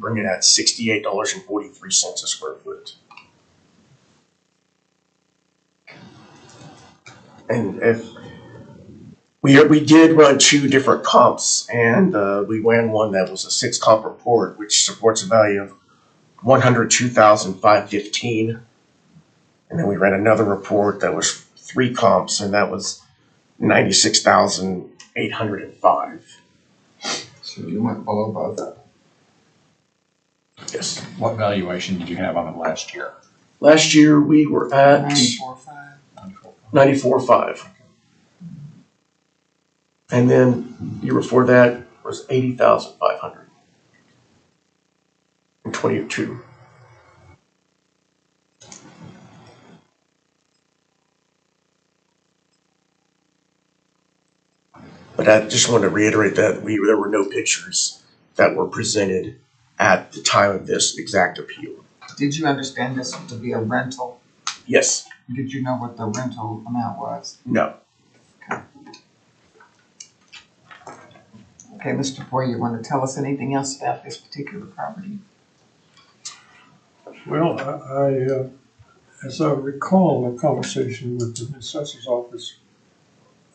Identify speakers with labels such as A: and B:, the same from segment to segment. A: bring it at sixty-eight dollars and forty-three cents a square foot. And if, we, we did run two different comps, and, uh, we ran one that was a six comp report, which supports a value of one hundred two thousand five fifteen. And then we ran another report that was three comps, and that was ninety-six thousand eight hundred and five.
B: So you went below above that.
A: Yes.
C: What valuation did you have on it last year?
A: Last year, we were at
B: Ninety-four five.
A: ninety-four five. And then year before that was eighty thousand five hundred. And twenty-two. But I just wanted to reiterate that we, there were no pictures that were presented at the time of this exact appeal.
B: Did you understand this to be a rental?
A: Yes,
B: Did you know what the rental amount was?
A: no,
B: Okay, Mr. Boyer, you wanna tell us anything else about this particular property?
D: Well, I, I, uh, as I recall a conversation with the assessor's office,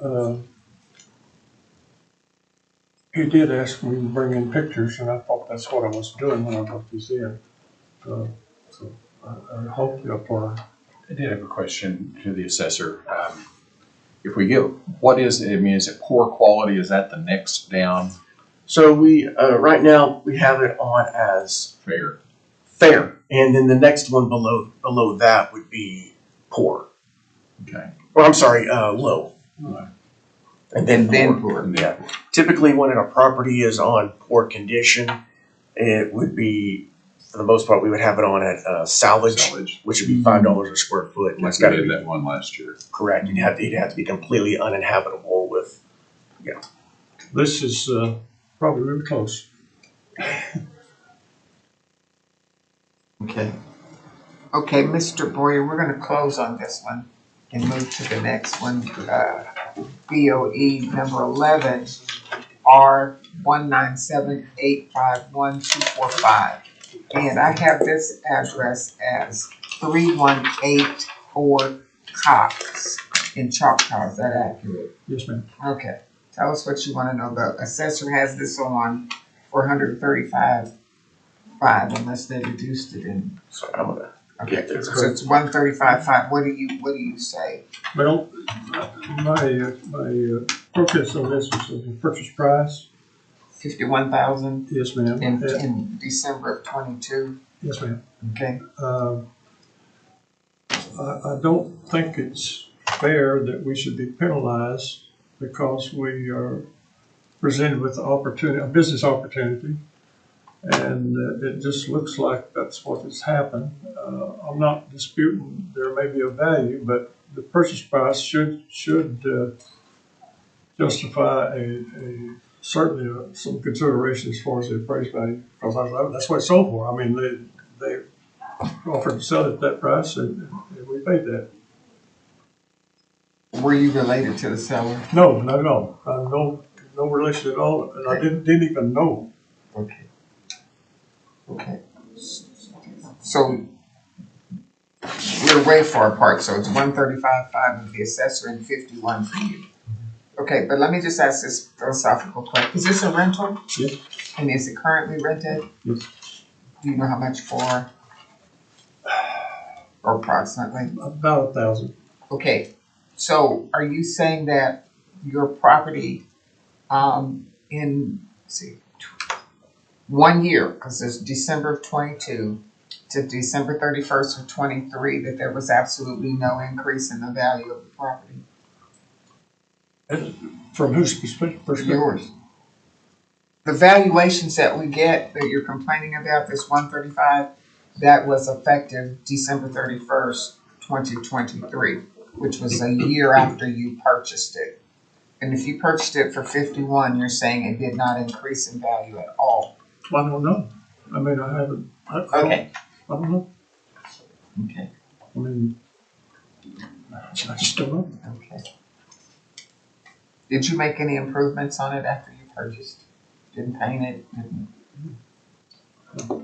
D: uh, he did ask me to bring in pictures, and I thought that's what I was doing when I brought these in. Uh, So I, I hope you apply.
C: I did have a question to the assessor. Um, If we get, what is, I mean, is it poor quality? Is that the next down
A: So we, uh, right now, we have it on as
C: fair?
A: fair, and then the next one below, below that would be poor,
C: Okay.
A: or I'm sorry, uh, low.
C: Right.
A: And then
B: Then
A: poor.
B: poor.
C: And
A: Yeah.
C: then-
A: Typically, when a property is on poor condition, it would be, for the most part, we would have it on at, uh, salvage,
C: Salvage.
A: which would be five dollars a square foot, and
C: Like
A: it's
C: we
A: gotta
C: did
A: be
C: that one last year.
A: correct, you'd have, to- it'd have to be completely uninhabitable with,
D: This is, uh, probably really close.
B: Okay. Okay, Mr. Boyer, we're gonna close on this one and move to the next one, uh, BOE number eleven, R one nine seven eight five one two four five. And I have this address as three one eight four Cox in Choctaw, is that accurate?
D: Yes, ma'am.
B: Okay, tell us what you wanna know, the assessor has this on for hundred and thirty-five five unless they reduced it in.
A: so I'm gonna, Yeah,
B: Okay,
A: that's
B: so it's one thirty-five five, what do you, what do you say?
D: Well, my, uh, my uh, focus on this is the purchase price.
B: Fifty-one thousand
D: Yes, ma'am.
B: in,
D: Uh,
B: in December of twenty-two,
D: Yes, ma'am.
B: okay?
D: Uh, I, I don't think it's fair that we should be penalized because we are presented with opportunity, a business opportunity. And uh, it just looks like that's what has happened. Uh, I'm not disputing there may be a value, but the purchase price should, should, uh, justify a, a, certainly uh, some consideration as far as the appraised value. Because I- that's what it's sold for. I mean, they, they offered to sell it at that price, and, and we paid that.
B: Were you related to the seller?
D: No, not at all. i no, no relation at all, and I didn't, didn't even know.
B: Okay. Okay. So we're way far apart, so it's one thirty-five five of the assessor and fifty-one for you. Okay, but let me just ask this philosophical question. Is this a rental?
D: Yes.
B: And is it currently rented?
D: Yes.
B: Do you know how much for? Or approximately?
D: About a thousand.
B: Okay, so are you saying that your property, um, in, let's see, tw- one year, cause it's December of twenty-two to December thirty-first of twenty-three, that there was absolutely no increase in the value of the property?
D: From whose perspe- perspective?
B: Yours. The valuations that we get, that you're complaining about, this one thirty-five, that was effective December thirty-first, twenty twenty-three, which was a year after you purchased it. And if you purchased it for fifty-one, you're saying it did not increase in value at all.
D: I don't know. I mean, I haven't, I, I don't, I don't know.
B: Okay.
D: I mean, I just don't know.
B: Okay. Did you make any improvements on it after you purchased? Didn't paint it, didn't?